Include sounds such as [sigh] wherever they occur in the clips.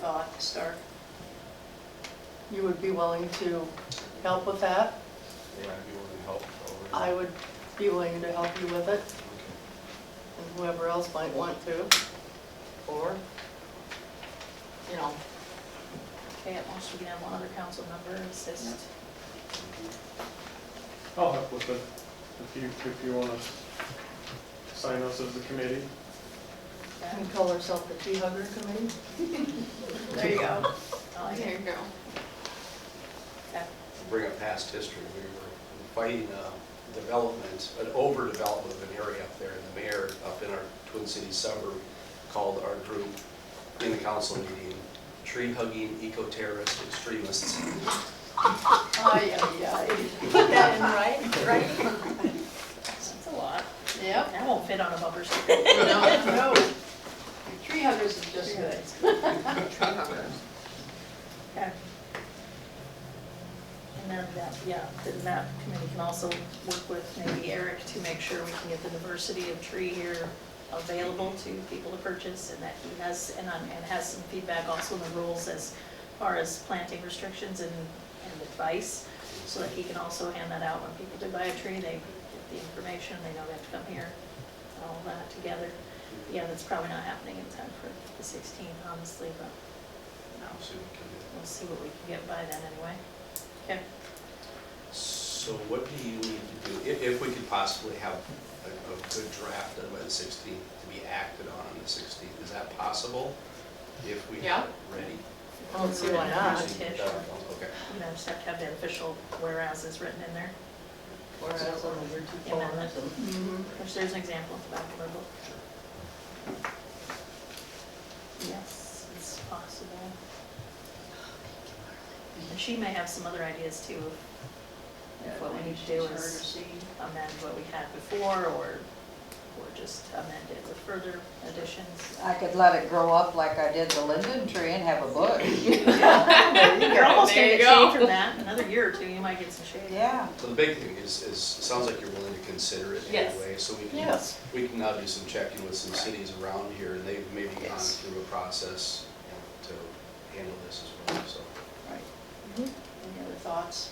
thought, start. You would be willing to help with that? They might be willing to help over. I would be willing to help you with it, and whoever else might want to, or, you know, Okay, at most we can have one other council member assist. I'll help with it, if you, if you want to sign us as a committee. Yeah, and call herself the tree hugger committee. [laughs] There you go. I like There it. you go. Okay. bring up past history, we were fighting uh, development, an overdevelopment of an area up there, and the mayor up in our Twin Cities suburb called our group in the council meeting, tree-hugging eco-terrorist extremists. Ay, ay, ay. Put that in, right, right? That's a lot. Yep. That won't fit on a bumper sticker. No, no, Tree huggers is just good. tree huggers. Okay. And then that, yeah, the map committee can also work with maybe Eric to make sure we can get the diversity of tree here available to people to purchase and that he has, and, on- and has some feedback also in the rules as far as planting restrictions and, and advice, so that he can also hand that out when people do buy a tree, they get the information, they know they have to come here, and all that together. Yeah, that's probably not happening in time for the 16th, honestly, but, no. So we can- We'll see what we can get by then anyway. Okay, So what do you need to do, if, if we could possibly have a, a good draft done by the 16th to be acted on on the 16th, is that possible? If we Yeah. are ready? I don't see why not, Okay. Tish. uh, you know, just have to have the official whereas is written in there, whereas on the year two Yeah. forms and Mhm. which there's an example at the back of our book. Yes, it's possible. And she may have some other ideas too of of what we need to do is amend what we had before or, or just amend it with further [laughs] additions. I could let it grow up like I did the linden tree and have a bush. You're almost gonna There get you shade go. from that, another year or two, you might get some shade. Yeah, So the big thing is, is, it sounds like you're willing to consider it Yes. anyway, so we can, Yes, we can now do some checking with some cities around here, and they've maybe gone Yes. through a process you know, to handle this as well, so. Right. Any other thoughts?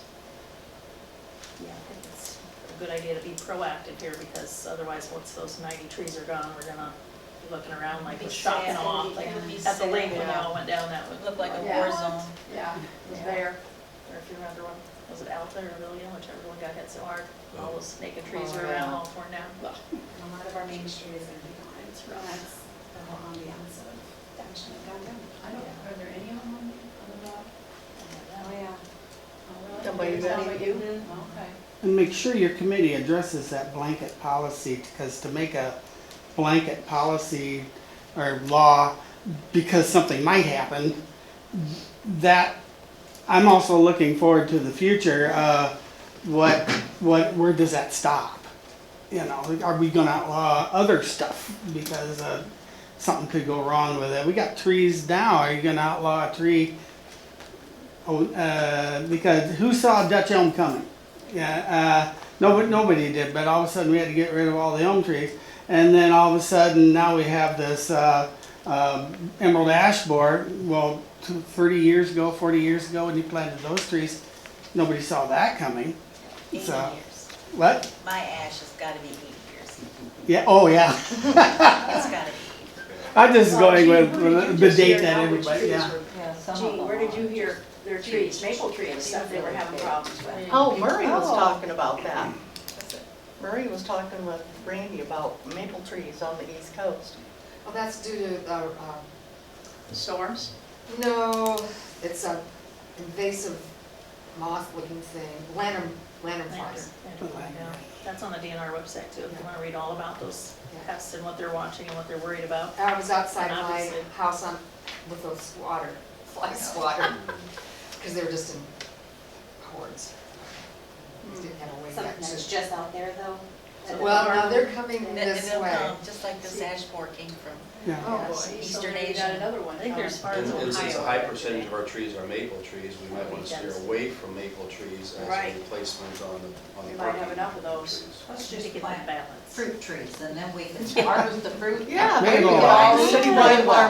Yeah, I think it's a good idea to be proactive here because otherwise, once those 90 trees are gone, we're gonna be looking around like Be we're chopping sad. them off. Like It'll be at the lake when they sad. all went down, that would Looked like a Yeah. war zone. Yeah. was there. Or if you remember when, was it Alta or Villian, whichever one got hit so hard? All those naked trees Oh, were yeah. around, all torn down. A lot of our main street is gonna be gone, it's real nice, the whole ambiance of downtown and downtown. I don't- are there any on, on the Oh, block? Oh, yeah. Somebody that Somebody- you- Mm-hmm. Okay. And make sure your committee addresses that blanket policy, because to make a blanket policy or law, because something might happen, that, I'm also looking forward to the future, uh, what, what, where does that stop? You know, are we gonna outlaw other stuff because, uh, something could go wrong with it? We got trees now, are you gonna outlaw a tree? Oh, uh, because who saw Dutch elm coming? Yeah, uh, nobody, nobody did, but all of a sudden we had to get rid of all the elm trees. And then all of a sudden now we have this uh, uh, emerald ash borer. Well, t- 30 years ago, 40 years ago, when you planted those trees, nobody saw that coming. Eighty So- years. What? My ash has gotta be eighty years. Yeah, oh yeah. [laughs] It's gotta be. I'm just Well, going gee, with, where did you with the just hear date that how many everybody, trees yeah. were- yeah, some of Gee, them where did are. you hear their trees, maple tree and stuff they were having problems with? oh, Murray was Oh. talking about that. Murray was talking with Randy about maple trees on the east coast. Well, that's due to, uh, uh, Storms? no, it's a invasive moth-looking thing, lantern, lantern flies. That's on the DNR website too, if you wanna read all about those pests and what they're watching and what they're worried about. I was outside And my obviously- house on, with those water, fly swatter, because they were just in hordes. Just Didn't have a way Something back that's to. just out there though. that- Well, now they're coming And it- this and they'll way. come, Just like this ash borer came from yeah. Oh, Yes. boy. Eastern Maybe Asian. got another one. I think there's far And as Ohio. and since a high percentage of our trees are maple trees, we might want to steer away from maple trees as Right. a replacement on the, on the. We might have parking enough of those. trees. Let's To just get that plant balance. [laughs] fruit trees and then we can harvest the fruit. Yeah, There you maybe go. all citywide